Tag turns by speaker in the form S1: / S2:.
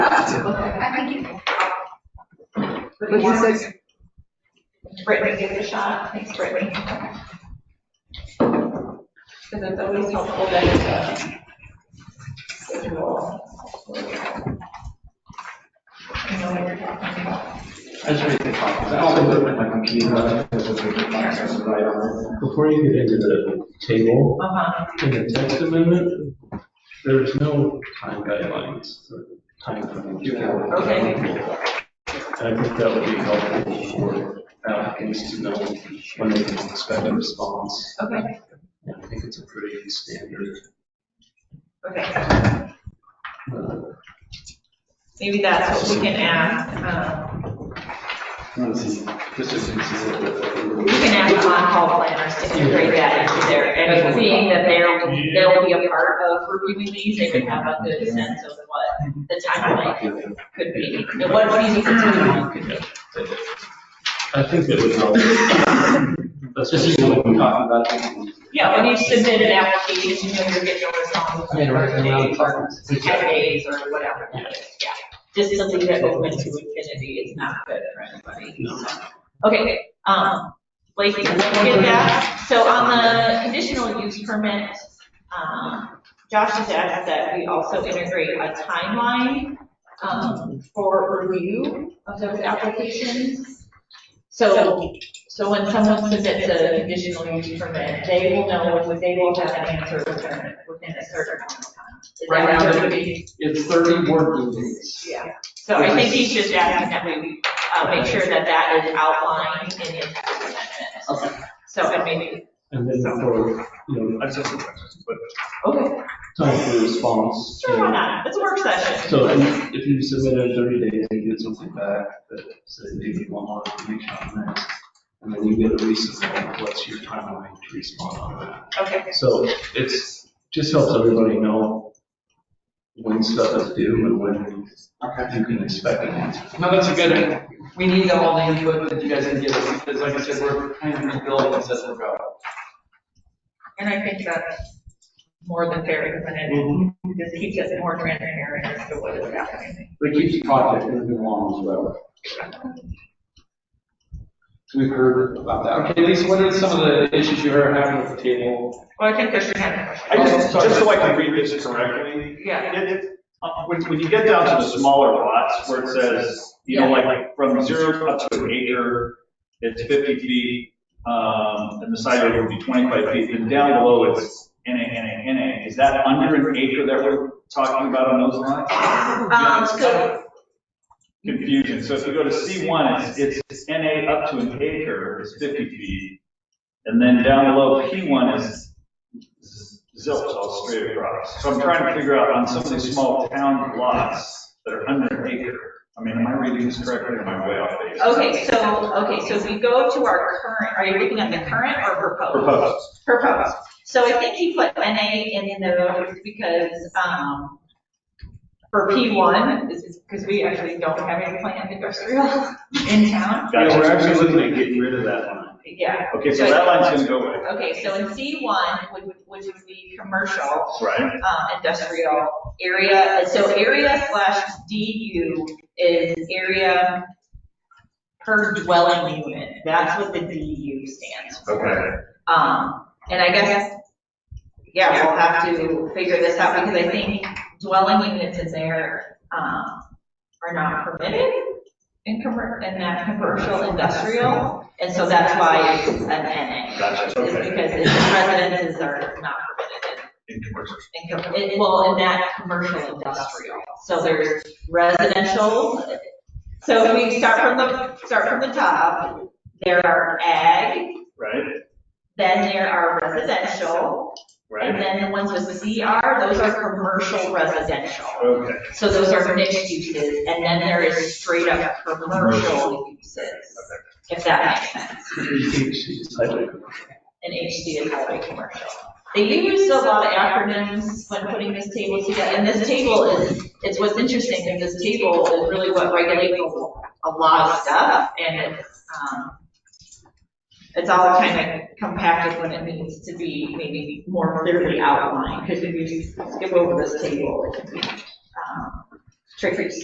S1: But he
S2: yeah.
S1: says,
S2: Brittany gave it a shot, thanks Brittany. Because it's always helpful that it's a schedule. You know what you're talking about.
S3: I just read the comments. I also put my computer on, because it's a good access to write on
S4: Before you get into the table,
S2: Uh-huh.
S4: in the text amendment, there's no time guidelines or time.
S3: it.
S4: frames.
S3: You can-
S2: Okay.
S4: And I think that would be helpful for applicants to know when they can expect a response.
S2: Okay,
S4: And I think it's a pretty standard.
S2: okay.
S4: uh,
S2: Maybe that's what we can ask, um,
S3: Consistency with
S2: You
S3: the-
S2: can ask on-call planners to integrate that into there, and seeing that they're, they'll be a part of reviewing these, they can have a good sense of what the timeline could be, and what feasible timeline could be.
S4: I think that would help. That's
S3: Just
S4: just,
S3: even when we're talking about it.
S2: Yeah, when you submit an application, you know you're getting a response
S3: I mean,
S2: in thirty
S3: right,
S2: days or
S3: right.
S2: ten days or whatever that is, yeah. Just to leave that open to infinity is not good for anybody.
S4: no,
S2: Okay, um, Blake, you get that? So on the conditional use permit, um, Josh has asked that we also integrate a timeline, um, for review of those applications. So, so when someone submits a conditional use permit, they will know, when they will have an answer within, within a certain amount of time. Is that
S3: Right now,
S2: what
S3: they're-
S2: you're doing?
S3: It's 30 working days.
S2: Yeah. So I think he's just asking that we, uh, make sure that that is outlined in the text amendment.
S3: Okay.
S2: So, and maybe,
S4: and then for, you know,
S5: That's just a question, but
S2: okay,
S4: time for response. you
S2: sure,
S4: know,
S2: why not? It's a work session.
S4: So if if you submit it in thirty days and you get something back that says maybe one more information on this, and then you get a resubmit, what's your timeline to respond on
S2: Okay,
S4: that? So it's, just helps everybody know when stuff is due and when
S3: Okay.
S4: you can expect an answer.
S3: No, that's a good, we need all the input that you guys can give us, because like I said, we're kind of rebuilding this as we go.
S2: and I think that's more than fair, isn't it?
S5: Mm-hmm.
S2: This keeps us more transparent as to what is happening.
S3: But it keeps the project moving along as well. We've heard about that. Okay, Lisa, what are some of the issues you are having with the table?
S2: Well, I think there's your hand.
S5: I just, just so I can read this correctly.
S2: Yeah.
S5: It, it, uh, when, when you get down to the smaller lots where it says, you know, like, like from zero up to an acre, it's fifty feet, um, and the side yard would be twenty-five feet, and down below it's NA, NA, NA. Is that under an acre that we're talking about on those lines?
S2: Um, so,
S5: confusion. So if you go to C1, it's, it's NA up to an acre is 50 feet. And then down below, P1 is zilch all straight across. So I'm trying to figure out on some of these small town lots that are under an acre. I mean, am I reading this correctly or am I way off base?
S2: okay, so, okay, so if we go to our current, are you looking at the current or proposed?
S5: Proposed.
S2: proposed. So I think he put NA in those because, um, for P1, this is because we actually don't have any planned industrial in town.
S5: Gotcha. We're actually looking at getting rid of that line.
S2: Yeah,
S5: Okay, so that line's gonna go away,
S2: okay, so in C1, which, which would be commercial,
S5: right?
S2: um, industrial area, so area slash DU is area per dwelling unit. That's what the DU stands for.
S5: Okay.
S2: Um, and I guess, yeah, we'll have to figure this out because I think dwelling units in there, um, are not permitted in commer, in that commercial industrial. And so that's why it's an NA.
S5: Gotcha,
S2: Is
S5: okay.
S2: because it's residences are not permitted
S5: In commercial.
S2: in, in com- in, well, in that commercial industrial. So there's residential. So if we start from the, start from the top, there are ag,
S5: Right,
S2: then there are residential, and
S5: right?
S2: then the ones with CR, those are commercial residential.
S5: Okay,
S2: So those are mixed uses, and then there is straight up commercial uses, if that makes sense. And HD is highway commercial. They used a lot of acronyms when putting this table together, and this table is, it's what's interesting, is this table is really what regulates a lot of stuff, and it's, um, it's all kind of compacted when it needs to be maybe more clearly outlined, because if you skip over this table, it can be um, tricky.